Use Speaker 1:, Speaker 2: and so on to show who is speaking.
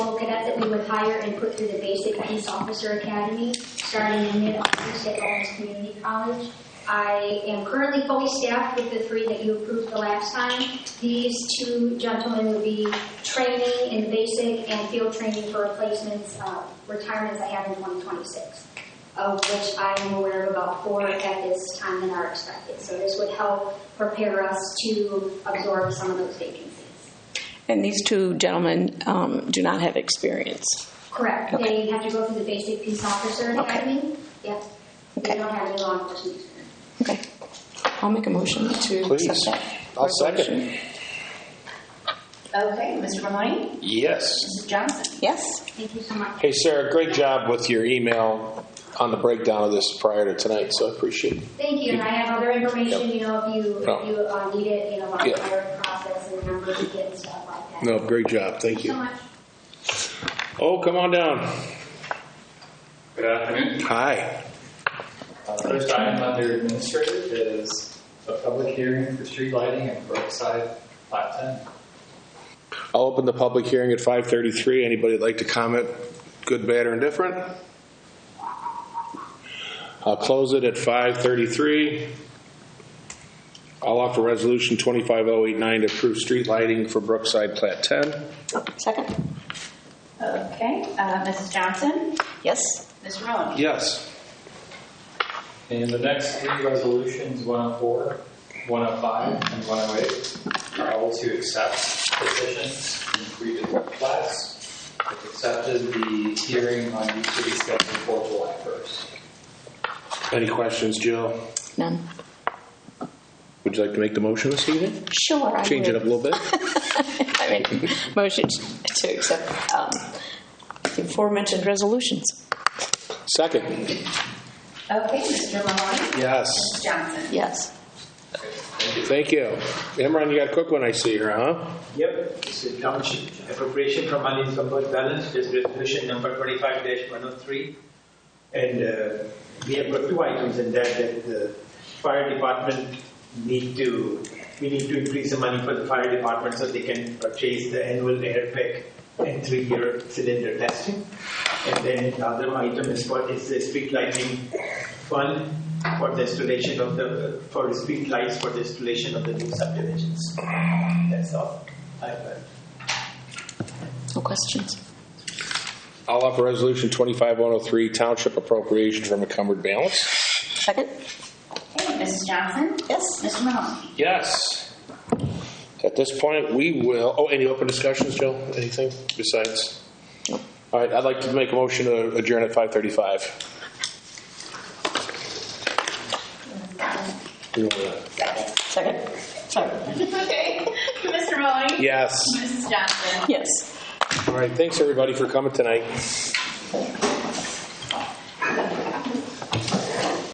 Speaker 1: with higher input through the Basic Peace Officer Academy, starting in mid-August at Owens Community College. I am currently fully staffed with the three that you approved the last time. These two gentlemen will be training in basic and field training for replacements, uh, retirements I have in 2026, of which I am aware of about four at this time that are expected. So this would help prepare us to absorb some of those vacancies.
Speaker 2: And these two gentlemen um, do not have experience.
Speaker 1: Correct. They have to go through the basic peace officer
Speaker 2: Okay.
Speaker 1: academy. Yep. They
Speaker 2: Okay.
Speaker 1: don't have any law enforcement experience.
Speaker 2: Okay. I'll make a motion to accept
Speaker 3: Please.
Speaker 2: that.
Speaker 3: I'll second.
Speaker 4: Okay, Mr. Mahoney,
Speaker 3: Yes.
Speaker 4: Mrs. Johnson.
Speaker 2: Yes.
Speaker 1: Thank you so much.
Speaker 3: Hey, Sarah, great job with your email on the breakdown of this prior to tonight, so I appreciate it.
Speaker 1: Thank you. And I have other information, you know, if you,
Speaker 3: No.
Speaker 1: if you uh, need it, you know, about
Speaker 3: Yeah.
Speaker 1: the hiring process and numbers to get and stuff like that.
Speaker 3: No, great job. Thank
Speaker 1: Thank you so much.
Speaker 3: Oh, come on down.
Speaker 5: Good afternoon.
Speaker 3: Hi.
Speaker 5: Uh, First item under administrative is a public hearing for street lighting in Brookside, Lot 10.
Speaker 3: I'll open the public hearing at 5:33. Anybody that'd like to comment, good, bad, or indifferent? I'll close it at 5:33. I'll offer Resolution 25089 to approve street lighting for Brookside Plat 10.
Speaker 2: Second.
Speaker 4: Okay, uh, Mrs. Johnson,
Speaker 2: Yes.
Speaker 4: Mr. Mahoney.
Speaker 3: Yes.
Speaker 5: And the next three resolutions, 104, 105, and 108, are all to accept positions in three different class. It accepted the hearing on each of these scheduled for July 1st.
Speaker 3: Any questions, Jill?
Speaker 2: None.
Speaker 3: Would you like to make the motion this evening?
Speaker 2: Sure. I
Speaker 3: Change it up a
Speaker 2: would.
Speaker 3: little bit?
Speaker 2: I make a motion to accept um, the aforementioned resolutions.
Speaker 3: Second.
Speaker 4: Okay, Mr. Mahoney, Mrs.
Speaker 3: Yes.
Speaker 4: Johnson.
Speaker 2: Yes.
Speaker 3: Thank you. Imran, you got a quick one I see here, huh?
Speaker 6: Yep, it's a township appropriation from unencumbered balance, this resolution number twenty-five one oh three. And uh, we have got two items in that, that the fire department need to, we need to increase the money for the fire department so they can purchase the annual airbag and three-year cylinder testing. And then the other item is for, is the street lighting fund for the installation of the, for the street lights for the installation of the new subdivisions. That's all. I have.
Speaker 2: No questions.
Speaker 3: I'll offer resolution 25103, township appropriation from encumbered balance.
Speaker 2: Second.
Speaker 4: Okay, Mrs. Johnson,
Speaker 2: Yes.
Speaker 4: Mr. Mahoney.
Speaker 3: Yes. At this point, we will, oh, any open discussions, Jill? Anything besides? All right, I'd like to make a motion to adjourn at 5:35. You wanna-
Speaker 2: Second. Sorry.
Speaker 4: Okay, Mr. Mahoney.
Speaker 3: Yes.
Speaker 4: Mrs. Johnson.
Speaker 2: Yes.
Speaker 3: All right, thanks, everybody, for coming tonight.